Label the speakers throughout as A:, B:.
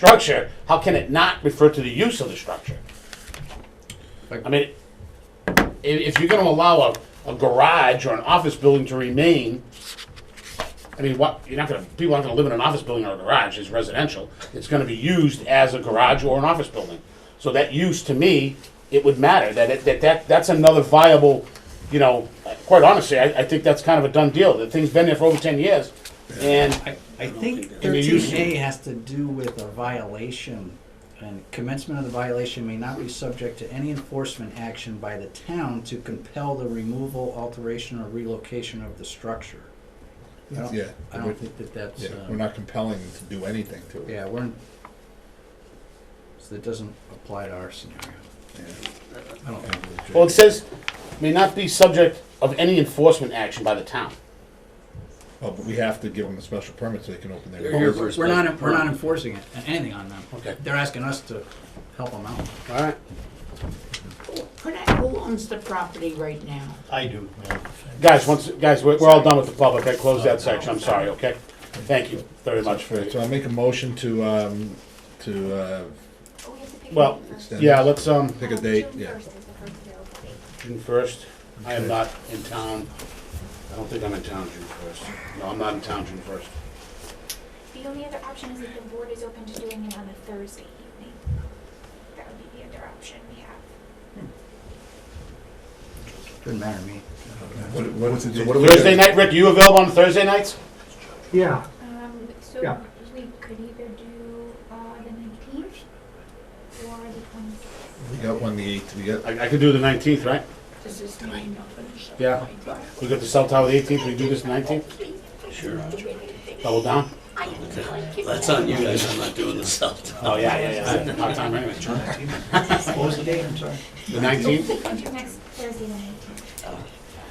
A: structure, how can it not refer to the use of the structure? I mean, i- if, you're gonna allow a, a garage or an office building to remain, I mean, what, you're not gonna, people aren't gonna live in an office building or a garage, it's residential, it's gonna be used as a garage or an office building. So that use, to me, it would matter, that, it- that, that, that's another viable, you know, quite honestly, I, I think that's kind of a done deal, the thing's been there for over ten years, and
B: I, I think
A: And you use-
B: thirteen A has to do with a violation, and commencement of the violation may not be subject to any enforcement action by the town to compel the removal, alteration, or relocation of the structure. I don't-
C: Yeah,
B: I
C: we're-
B: don't think that that's,
C: Yeah, we're
B: uh,
C: not compelling them to do anything to it.
B: yeah, we're, in- so that doesn't apply to our scenario. I don't think.
A: Well, it says may not be subject of any enforcement action by the town.
C: Oh, but we have to give them a special permit so they can open their.
D: They're here
C: doors.
D: first.
B: We're not, we're not enforcing it, anything on them.
A: Okay.
B: They're asking us to help them out.
A: All right.
E: Could I, who owns the property right now?
F: I do. yeah.
A: Guys, once, guys, we're, we're all done with the public. I closed that section. I'm sorry, okay? Thank you very much for
C: Right, so
A: it.
C: I'll make a motion to, um, to, uh,
A: Well,
C: extend.
A: yeah, let's, um,
C: Pick a date, yeah.
A: June first. I am not in town. I don't think I'm in town June first. No, I'm not in town June first.
G: The only other option is if the board is open to doing it on a Thursday evening. That would be the other option we have.
B: Doesn't matter to me.
C: What, what, so what do we? do?
A: Thursday night, Rick, are you available on Thursday nights?
H: Yeah,
G: Um, so
H: Yeah.
G: we could either do, uh, the nineteenth or the twenty-sixth.
C: We got one the eighth, we got,
A: I, I could do the nineteenth, right?
E: Does this mean nothing?
A: Yeah. We got the cell tower the eighteenth. We do this nineteenth?
D: Sure.
A: Double down?
D: That's on you guys. I'm not doing the cell
A: Oh, yeah, yeah, yeah. Hard time anyway.
B: What was the date, I'm sorry?
A: The nineteenth?
G: Next Thursday, the nineteenth.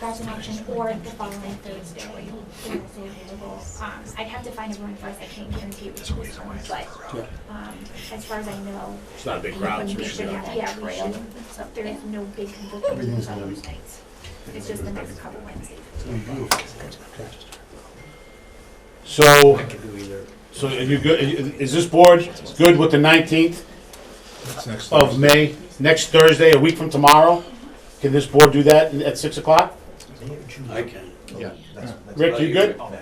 G: That's an option, or the following Thursday, they're also available. Um, I'd have to find everyone first, I can't guarantee which one's on, but, um, as far as I know.
A: It's not a big crowd, so we
G: we
A: should be all
G: have-
A: right.
G: Yeah, we should, there's no big conflict on those nights. It's just the next couple Wednesdays.
A: So.
B: I could do either.
A: So are you good, is this board good with the nineteenth
C: it's next
A: of
C: Thursday.
A: May, next Thursday, a week from tomorrow? Can this board do that at six o'clock?
D: I can.
B: Yeah.
A: Rick, you good? Paul,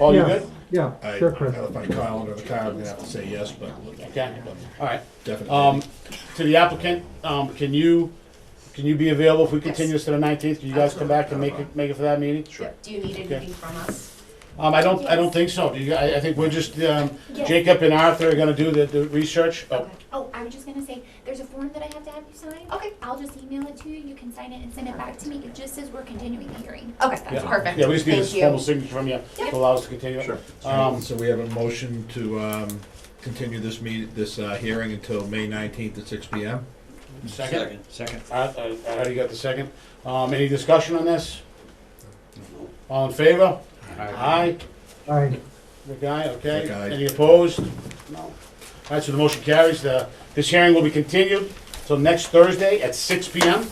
A: Oh, you good?
C: I,
H: yeah, sure, Chris.
C: if I call under the car, I'm gonna have to say yes, but
A: Okay, all right. Um,
C: definitely.
A: to the applicant, um, can you, can you be available if we continue this to the nineteenth? Can you guys come back and make it, make it for that meeting?
D: Sure.
I: Do you need anything from us?
A: Um, I don't, I don't think so. Do you, I, I think we're just, um,
G: Yes.
A: Jacob and Arthur are gonna do the, the research. Oh,
G: Oh, I was just gonna say, there's a form that I have to have you sign.
I: Okay.
G: I'll just email it to you, you can sign it and send it back to me, it just says we're continuing the hearing.
I: Okay,
A: yeah.
I: perfect.
A: Yeah, we just need a
I: Thank you.
A: formal signature from you to allow us to continue. it.
D: Sure.
A: Um,
C: So we have a motion to, um, continue this meet, this, uh, hearing until May nineteenth at six P M.
A: second? uh,
B: Second.
A: I I- I already got the second. Um, Any discussion on this? All in favor? Aye.
H: I,
A: The guy, okay.
C: Rick, aye.
A: Any opposed? No. All right, so the motion carries. The- This hearing will be continued till next Thursday at 6 PM.
G: Yep.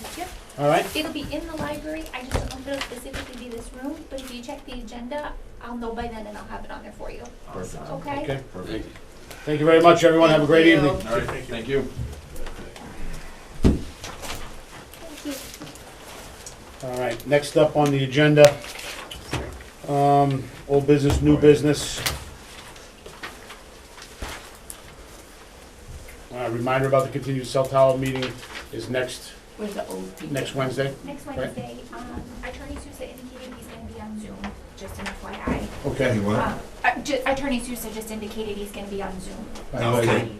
A: All right?
G: It'll be in the library, I just don't know if it'll specifically be this room, but if you check the agenda, I'll know by then and I'll have it on there for you,
C: Perfect.
G: okay?
A: Okay.
D: Thank you.
A: Thank you very much, everyone. Have a great
I: Thank you.
A: evening.
D: All right, thank you.
G: Thank you.
A: All right, next up on the agenda, um, old business, new business. Uh, Reminder about the continued cell tower meeting is next,
E: Where's the old people?
A: next Wednesday.
G: Next
A: Right.
G: Wednesday, um, Attorney Sousa indicated he's gonna be on Zoom, just an FYI.
A: Okay.
C: You want?
G: Um, uh, ju- Attorney Sousa just indicated he's gonna be on Zoom.
C: Okay.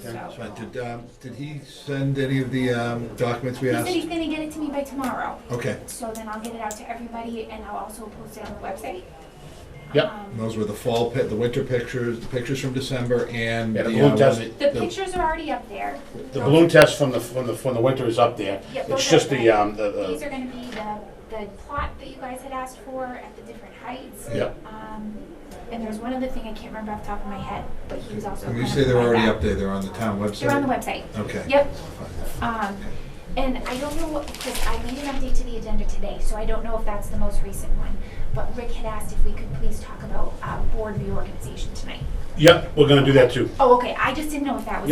G: So-
C: Right, Did, um, did he send any of the, um, documents we
G: He said he's
C: asked?
G: gonna get it to me by tomorrow,
C: Okay,
G: so then I'll get it out to everybody and I'll also post it on the website.
A: Yep.
G: Um,
C: and those were the fall, pi- the winter pictures, the pictures from December and.
A: Yeah, the
C: uh,
A: balloon
C: one
A: test.
C: that-
G: The pictures are already up there.
A: The balloon test from the, from the, from the winter is up there.
G: Yeah,
A: It's
G: those
A: just
G: are-
A: the, um, the,
G: These
A: the,
G: are gonna be the, the plot that you guys had asked for at the different heights.
A: yeah.
G: Um, and there's one other thing I can't remember off the top of my head, but he was also.
C: When you
G: gonna
C: say they're
G: provide
C: already
G: that.
C: up there, they're on the town website?
G: They're on the website.
C: Okay.
G: Yep. Um, and I don't know what, because I made an update to the agenda today, so I don't know if that's the most recent one. But Rick had asked if we could please talk about, uh, board reorganization tonight.
A: Yep, we're gonna do that too.
G: Oh, okay, I just didn't know if that was